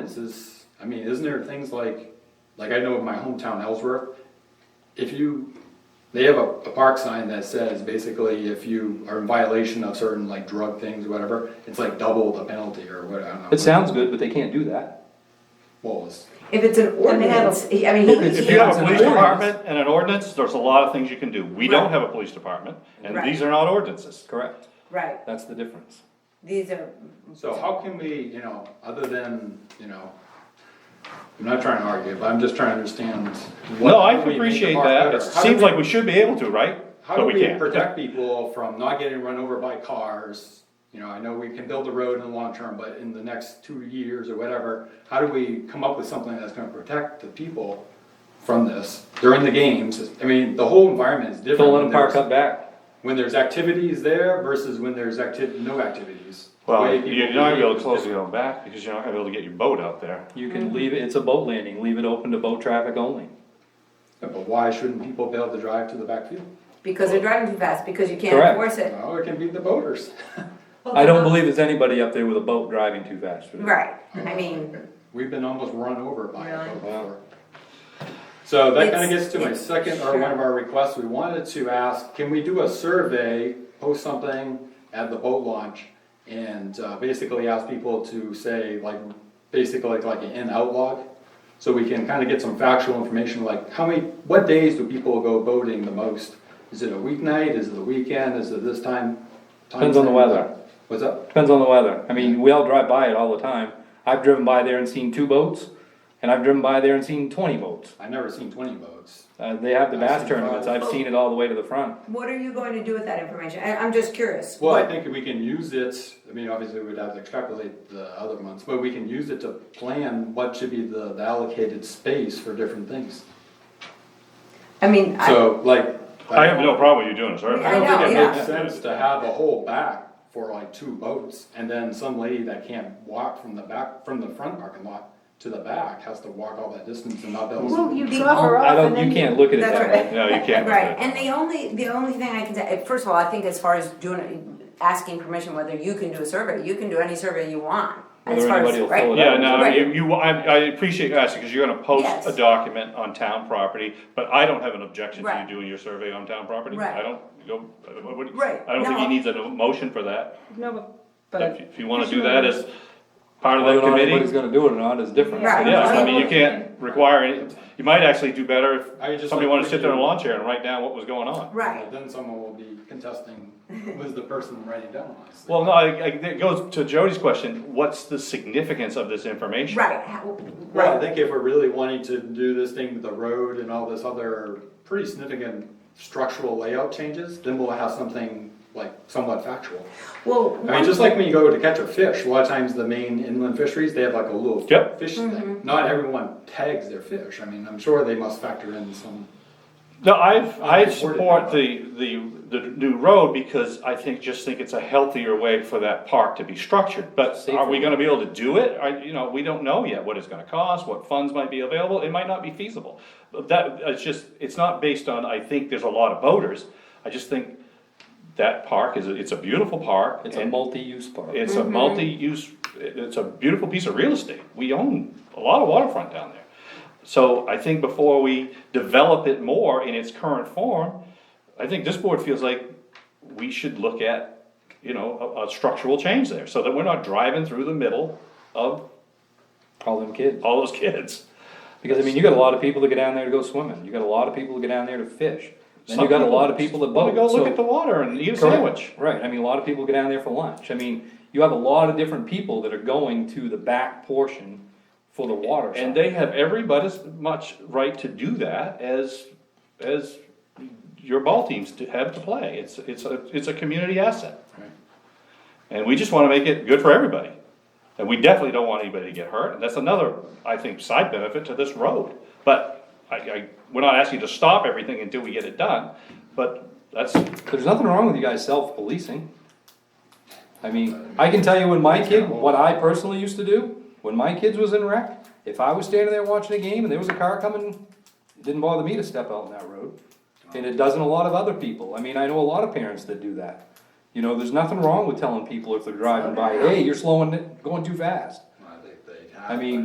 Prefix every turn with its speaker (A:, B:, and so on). A: ordinances, I mean, isn't there things like, like I know in my hometown Ellsworth, if you, they have a, a park sign that says basically if you are in violation of certain like drug things or whatever, it's like double the penalty or what, I don't know.
B: It sounds good, but they can't do that.
A: What was,
C: If it's an ordinance, he- I mean, he,
D: If
C: he,
D: you have
B: It's
D: a
B: an
D: police
B: ordinance.
D: department and an ordinance, there's a lot of things you can do. We don't have a police department, and
C: Right.
D: these are not ordinances.
B: Correct.
C: right,
B: That's the difference.
C: these are,
A: so how can we, you know, other than, you know, I'm not trying to argue, but I'm just trying to understand. what-
D: No, I
A: how do we make the
D: appreciate
A: park
D: that.
A: better?
D: It
A: How do
D: seems
A: we-
D: like we should be able to, right?
A: How do
D: But we
A: we
D: can't.
A: protect people from not getting run over by cars? You know, I know we can build the road in the long term, but in the next two years or whatever, how do we come up with something that's gonna protect the people from this during the games? I mean, the whole environment is different.
B: Don't let
A: when
B: them park
A: there's-
B: up back.
A: When there's activities there versus when there's acti- no activities. The
D: Well,
A: way
D: you're
A: people
D: not gonna be able
A: behave
D: to
A: is
D: close your
A: different.
D: own back, because you're not gonna be able to get your boat out there.
B: You can leave it, it's a boat landing, leave it open to boat traffic only.
A: But why shouldn't people be able to drive to the backfield?
C: because they're driving too fast, because you can't
B: Correct.
C: enforce it,
A: Well, it can be the boaters.
B: I don't believe there's anybody up there with a boat driving too fast.
C: right, I mean,
A: We've been almost run over by a
C: Really?
A: boat before. So that kinda
C: It's-
A: gets to my
C: it's-
A: second, or one of
C: sure.
A: our requests, we wanted to ask, can we do a survey, post something at the boat launch? And, uh, basically ask people to say, like, basically like an in-out log? So we can kinda get some factual information, like, how many, what days do people go boating the most? Is it a weeknight, is it a weekend, is it this time? time
B: Depends on the
A: frame?
B: weather.
A: What's up?
B: Depends on the weather. I mean, we all drive by it all the time. I've driven by there and seen two boats, and I've driven by there and seen twenty boats.
A: I've never seen twenty boats.
B: Uh, they have the
A: I've
B: bass
A: seen
B: tournaments,
A: five.
B: I've seen it all the way to the front.
C: what are you going to do with that information? I, I'm just curious.
A: Well, I
C: What-
A: think we can use it, I mean, obviously we'd have to extrapolate the other months, but we can use it to plan what should be the the allocated space for different things.
C: I mean, I,
A: So like,
D: I
A: I
D: have
A: don't
D: no problem with you doing it, sir.
C: I
A: I don't
C: know,
A: think it
C: yeah.
A: makes sense to have a whole back for like two boats and then some lady that can't walk from the back, from the front parking lot to the back has to walk all that distance and not be able
E: Well,
A: to.
E: you drop her
B: I
E: off and
B: don't,
E: then
B: you
E: you.
B: can't look at it
C: That's
B: that
C: right.
B: way.
D: No, you can't.
C: right, and the only, the only thing I can say, eh, first of all, I think as far as doing, it, asking permission whether you can do a survey, you can do any survey you want. As
B: Whether
C: far as,
B: anybody will
C: right?
B: fill it
D: Yeah, no,
C: Right.
D: you, you, I, I appreciate you asking, cause you're gonna post
C: Yes.
D: a document on town property, but I don't have an objection to
C: Right.
D: you doing your survey on town property.
C: Right.
D: I don't, go, what- what-
C: Right,
D: I don't think
C: no.
D: he needs a motion for that.
E: No,
D: If
E: but.
D: you- if you wanna do that as part of
B: Whether
D: that
B: or not anybody's
D: committee,
B: gonna do it or not is different.
C: Right.
D: yeah, I mean, you can't require any, you might actually do better
A: I
D: if
A: just
D: somebody
A: like
D: wanted
A: what
D: to sit there in a
A: you-
D: lawn chair and write down what was going on.
C: Right,
A: Then someone will be contesting, was the person writing down on us?
D: Well, no, I, I, it goes to Jody's question, what's the significance of this information?
C: right, how-
A: Well, I
C: right.
A: think if we're really wanting to do this thing with the road and all this other pretty significant structural layout changes, then we'll have something like somewhat factual.
C: Well,
A: I mean, just like when you go to catch a fish, a lot of times the main inland fisheries, they have like a little
D: Yep.
A: fish thing. Not everyone tags their fish. I mean, I'm sure they must factor in some,
D: No, I've, I
A: Supported
D: support
A: by-
D: the, the, the new road because I think, just think it's a healthier way for that park to be structured. But are we
B: Safer.
D: gonna be able to do it? I, you know, we don't know yet what it's gonna cost, what funds might be available, it might not be feasible. But that, it's just, it's not based on, I think there's a lot of boaters, I just think that park is, a- it's a beautiful park.
B: It's a
D: and-
B: multi-use park.
D: It's a multi-use, it- it's a beautiful piece of real estate. We own a lot of waterfront down there. So I think before we develop it more in its current form, I think this board feels like we should look at, you know, a, a structural change there, so that we're not driving through the middle of
B: Call them kids.
D: all those kids.
B: Because I mean, you got a lot of people that go down there to go swimming, you got a lot of people that go down there to fish. Then you got a lot of people that boat,
D: Wanna go look
B: so-
D: at the water and eat a
B: Correct.
D: sandwich.
B: Right, I mean, a lot of people go down there for lunch, I mean, you have a lot of different people that are going to the back portion for the water.
D: And
B: side.
D: they have every but as much right to do that as, as your ball teams to have to play. It's, it's a, it's a community asset. And we just wanna make it good for everybody. And we definitely don't want anybody to get hurt, and that's another, I think, side benefit to this road. But I, I, we're not asking you to stop everything until we get it done, but that's,
B: There's nothing wrong with you guys self-policing. I mean, I can tell you when my kid, what I personally used to do, when my kids was in rec, if I was standing there watching a game and there was a car coming, it didn't bother me to step out on that road. And it doesn't a lot of other people, I mean, I know a lot of parents that do that. You know, there's nothing wrong with telling people if they're driving by, hey, you're slowing it, going too fast.
A: I think uh, they have.
B: I mean,